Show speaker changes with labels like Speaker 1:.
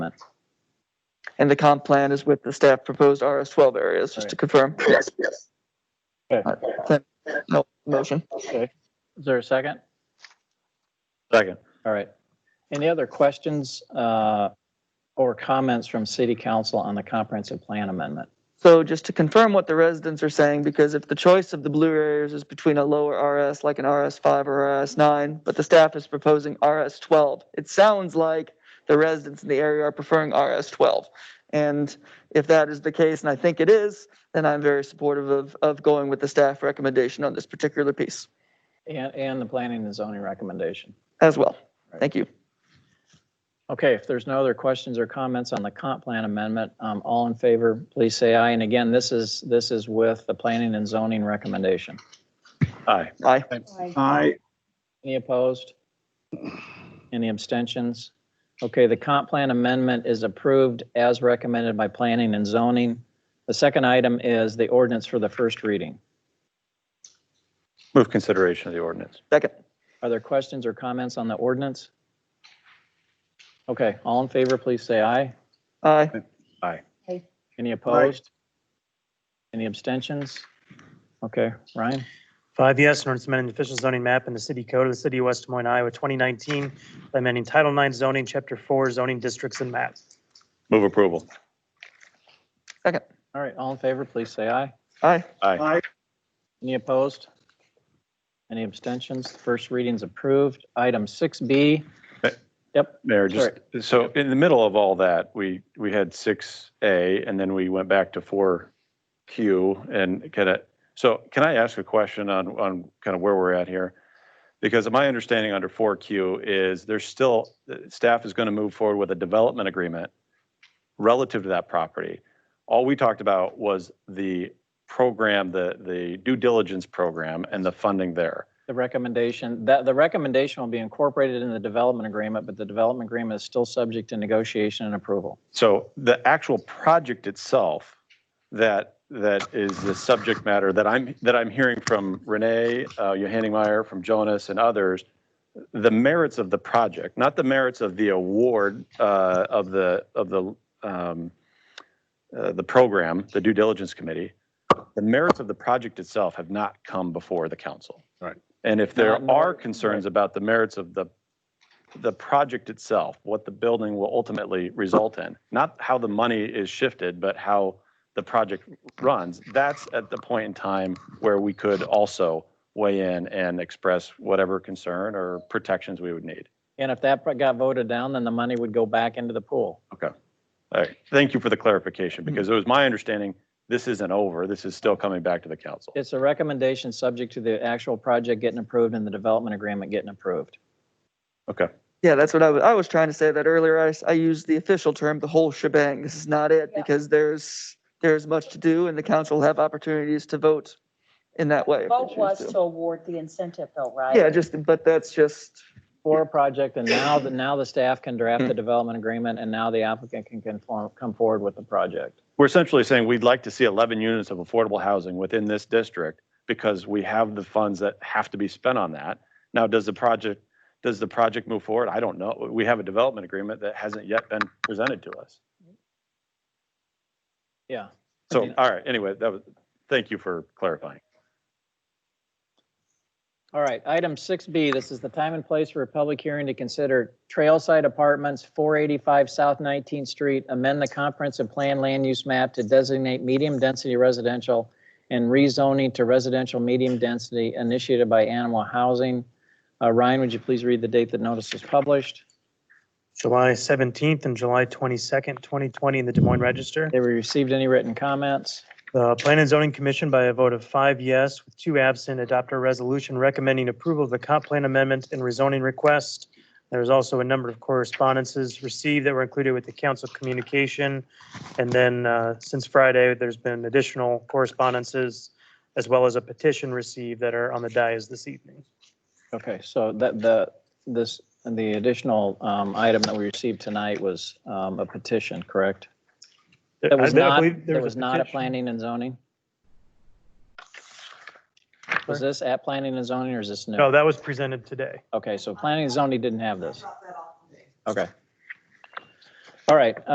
Speaker 1: And the comp plan is with the staff proposed RS twelve areas, just to confirm. Yes, yes.
Speaker 2: Okay.
Speaker 1: No motion.
Speaker 2: Is there a second?
Speaker 3: Second.
Speaker 2: All right. Any other questions uh, or comments from city council on the comprehensive plan amendment?
Speaker 1: So just to confirm what the residents are saying, because if the choice of the blue areas is between a lower RS, like an RS five or RS nine, but the staff is proposing RS twelve, it sounds like the residents in the area are preferring RS twelve. And if that is the case, and I think it is, then I'm very supportive of, of going with the staff recommendation on this particular piece
Speaker 2: And, and the planning and zoning recommendation?
Speaker 1: as well. Thank you.
Speaker 2: Okay, if there's no other questions or comments on the comp plan amendment, um, all in favor, please say aye. And again, this is, this is with the planning and zoning recommendation.
Speaker 3: Aye.
Speaker 1: Aye.
Speaker 4: Aye.
Speaker 2: Any opposed? Any abstentions? Okay, the comp plan amendment is approved as recommended by planning and zoning. The second item is the ordinance for the first reading.
Speaker 3: Move consideration of the ordinance.
Speaker 1: Second.
Speaker 2: Are there questions or comments on the ordinance? Okay, all in favor, please say aye.
Speaker 1: Aye.
Speaker 2: Any opposed? Any abstentions? Okay, Ryan,
Speaker 5: Five yes, an ordinance amending the official zoning map in the city code of the city of West Des Moines, Iowa, 2019, by amending Title IX zoning, Chapter 4, zoning districts and maps.
Speaker 3: Move approval.
Speaker 1: Second.
Speaker 2: all right, all in favor, please say aye.
Speaker 1: Aye.
Speaker 3: Aye.
Speaker 4: Aye.
Speaker 2: Any opposed? Any abstentions? First reading's approved. Item 6B,
Speaker 3: Mayor, just, so in the middle of all that, we, we had 6A and then we went back to 4Q and kind of, so can I ask a question on, on kind of where we're at here? Because my understanding under 4Q is there's still, the staff is going to move forward with a development agreement relative to that property. All we talked about was the program, the, the due diligence program and the funding there.
Speaker 2: the recommendation, that, the recommendation will be incorporated in the development agreement, but the development agreement is still subject to negotiation and approval.
Speaker 3: So the actual project itself, that, that is the subject matter that I'm, that I'm hearing from Renee, uh, Meyer, from Jonas and others, the merits of the project, not the merits of the award, uh, of the, of the, um, uh, the program, the due diligence committee, the merits of the project itself have not come before the council.
Speaker 4: Right.
Speaker 3: And if there
Speaker 2: Not- not-
Speaker 3: are concerns about the merits of the the project itself, what the building will ultimately result in, not how the money is shifted, but how the project runs, that's at the point in time where we could also weigh in and express whatever concern or protections we would need.
Speaker 2: And if that got voted down, then the money would go back into the pool.
Speaker 3: All right, thank you for the clarification, because it was my understanding, this isn't over, this is still coming back to the council.
Speaker 2: It's a recommendation subject to the actual project getting approved and the development agreement getting approved.
Speaker 3: Okay,
Speaker 1: Yeah, that's what I was, I was trying to say that earlier. I, s- I used the official term, the whole shebang. This is not it
Speaker 6: Yeah.
Speaker 1: because there's, there's much to do and the council will have opportunities to vote in that way. if they
Speaker 6: Vote
Speaker 1: choose
Speaker 6: was
Speaker 1: to.
Speaker 6: to award the incentive though, right?
Speaker 1: Yeah, just, but that's just,
Speaker 2: For a project, and now, the now the staff can draft the development agreement, and now the applicant can conform, come forward with the project.
Speaker 3: we're essentially saying we'd like to see 11 units of affordable housing within this district because we have the funds that have to be spent on that. Now, does the project, does the project move forward? I don't know. We have a development agreement that hasn't yet been presented to us.
Speaker 2: Yeah. I
Speaker 3: So,
Speaker 2: mean-
Speaker 3: all right, anyway, that was, thank you for clarifying.
Speaker 2: All right, item 6B, this is the time and place for a public hearing to consider Trailside Apartments, 485 South 19th Street, amend the comprehensive plan land use map to designate medium-density residential and rezoning to residential medium density initiated by Animal Housing. Uh, Ryan, would you please read the date that notice was published?
Speaker 5: July 17th and July 22nd, 2020, in the Des Moines Register.
Speaker 2: Have we received any written comments?
Speaker 5: The Plan and Zoning Commission, by a vote of five yes with two absent, adopted a resolution recommending approval of the comp plan amendment and rezoning request. There was also a number of correspondences received that were included with the council communication. And then uh, since Friday, there's been additional correspondences as well as a petition received that are on the dais this evening.
Speaker 2: Okay, so that, the, this, the additional um, item that we received tonight was um, a petition, correct? That was
Speaker 5: I- I
Speaker 2: not,
Speaker 5: believe there
Speaker 2: that was not at
Speaker 5: petition.
Speaker 2: planning and zoning? Was this at planning and zoning or is this
Speaker 5: No,
Speaker 2: new?
Speaker 5: that was presented today.
Speaker 2: Okay, so planning and zoning didn't have this. Okay. All right,